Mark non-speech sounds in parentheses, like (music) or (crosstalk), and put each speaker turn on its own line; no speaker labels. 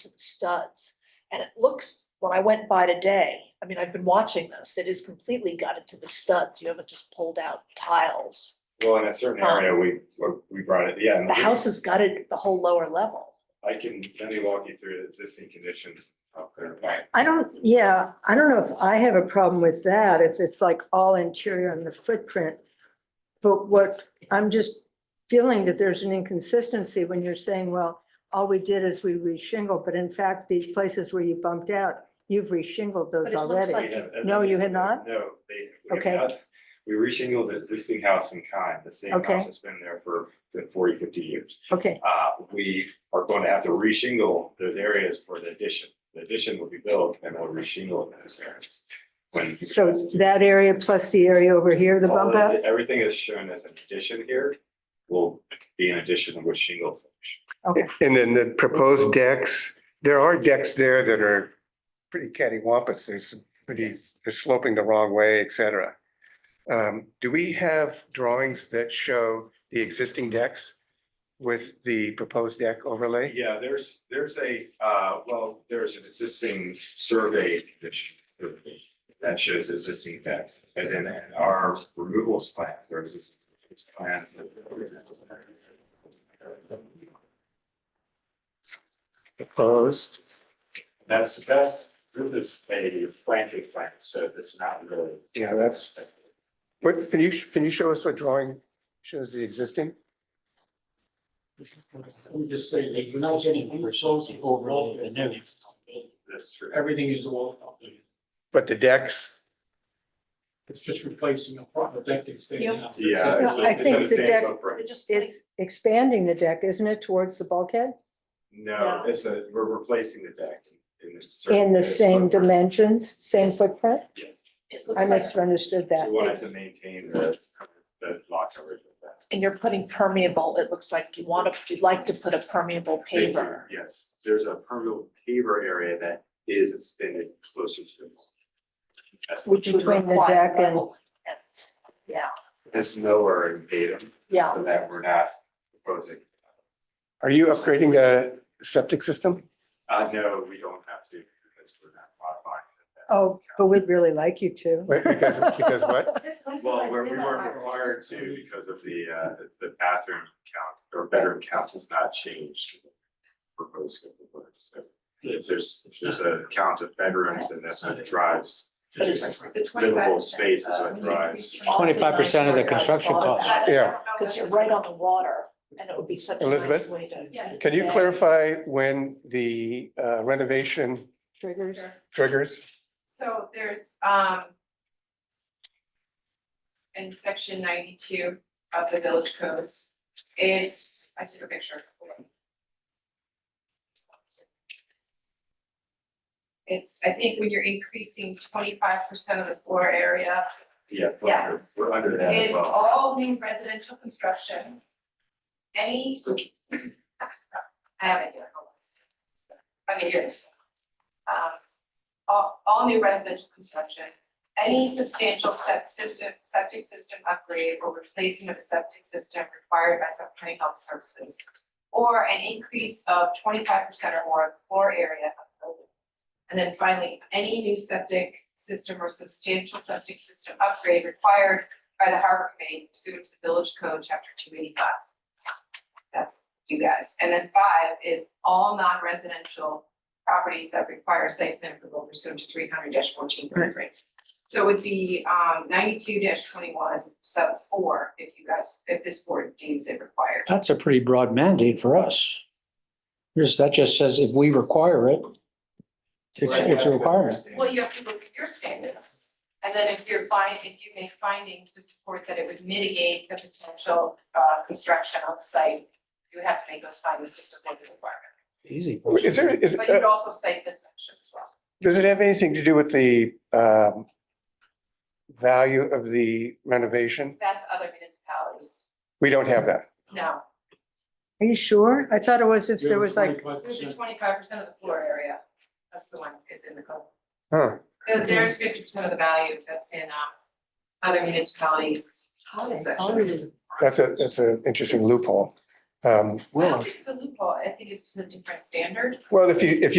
to the studs. And it looks, when I went by today, I mean, I've been watching this, it is completely gutted to the studs. You haven't just pulled out tiles.
Well, in a certain area,
Um,
we, we brought it, yeah. and
The house is gutted, the whole lower level.
I can, let me walk you through the existing conditions up there.
I don't, yeah, I don't know if I have a problem with that, if it's like all interior and the footprint. But what, I'm just feeling that there's an inconsistency when you're saying, well, all we did is we reshingled, but in fact, these places where you bumped out, you've reshingled
But
those
it looks
already.
like-
We have-
No, you had not?
No, they, we
Okay.
have not. We reshingled the existing house in kind, the same
Okay.
house that's been there for 40, 50 years.
Okay,
Uh, we are going to have to reshingle those areas for the addition. The addition will be built and we'll reshingle those areas. When.
so that area plus the area over here, the
All
Oh,
bump
of
out?
the- Everything is shown as an addition here will be an addition with shingle finish.
Okay,
And then the proposed decks, there are decks there that are pretty cattywampus. There's some pretty, they're sloping the wrong way, et cetera. Um, Do we have drawings that show the existing decks with the proposed deck overlay?
Yeah, there's, there's a, uh, well, there's an existing survey that sh- that shows existing decks. And then in our removals plan, there's this plan.
Proposed.
That's, that's, this is a planting plan, so it's not really.
Yeah, that's,
What, can you, can you show us what drawing shows the existing?
we just say the mountain results over the new.
That's true.
Everything is all,
But the decks,
it's just replacing a proper deck that's staying out.
Yeah. it's-
No, (laughs) I
it's in
think
the
the
same
deck-
footprint.
It just, like,
it's expanding the deck, isn't it, towards the bulkhead?
No,
Yeah.
it's a, we're replacing the deck in this.
In the same
footprint.
dimensions, same footprint?
Yes,
it
I
looks like,
misunderstood that.
we wanted to maintain the, the lot coverage of that.
and you're putting permeable, it looks like you want to, you'd like to put a permeable
Thank you.
paver.
Yes, there's a permeable paver area that is extended closer to the. wall. That's,
Which would
Between the
require
deck and-
level. And- Yeah,
that's nowhere in Tatum,
yeah.
so that we're not proposing.
are you upgrading the septic system?
Uh, no, we don't have to, because we're not modifying. it.
Oh, but we'd really like you to.
Wait, Because,
(laughs)
because what?
This, this is
Well,
what
we're- we
we want.
weren't required to because of the, uh, the bathroom count or bedroom count has not changed. Proposed, so if there's, if there's a count of bedrooms and that's what drives
But
It's the uh, 25%.
livable space is what drives.
25% of the construction cost.
I don't
Yeah.
know what
Because you're
it's-
right on the water and it would be such a nice
Elizabeth?
way to.
Yes.
Can you
Yeah.
clarify when the uh, renovation
Triggers.
triggers?
So there's, um, in section ninety-two of the village code, it's, I took a picture. Hold on. It's, I think when you're increasing twenty-five percent of the floor area,
Yeah, we're under, we're under that as
It's
well.
all new residential construction. Any. I have it here, hold on. Okay, here it is. Um, all, all new residential construction, any substantial sep- system, septic system upgrade or replacement of a septic system required by some county health services. Or an increase of twenty-five percent or more of floor area of building. And then finally, any new septic system or substantial septic system upgrade required by the harbor committee pursuant to the village code, chapter two eighty-five. That's you guys. And then five is all non-residential properties that require site plan approval pursuant to three hundred fourteen thirty-three. So it would be um ninety-two twenty-one sub four if you guys, if this board deems it required.
That's a pretty broad mandate for us. Because that just says if we require it, it's,
Right,
it's a
I
requirement.
understand.
Well, you have to look at your standards. And then if you're find, if you make findings to support that it would mitigate the potential uh construction on the site, you would have to make those findings to support the requirement.
Easy.
Is there, is,
But you
uh,
would also cite this section as well.
does it have anything to do with the um, value of the renovation?
That's other municipalities.
We don't have that.
No,
Are you sure? I thought it was if there was like,
25%.
there's a twenty-five percent of the floor area. That's the one that's in the code.
Huh.
There- There's fifty percent of the value that's in uh other municipalities.
Holiday,
section.
holiday.
That's a, that's an interesting loophole. Um,
I don't think It's a loophole, I think it's just a different standard.
Well, if you, if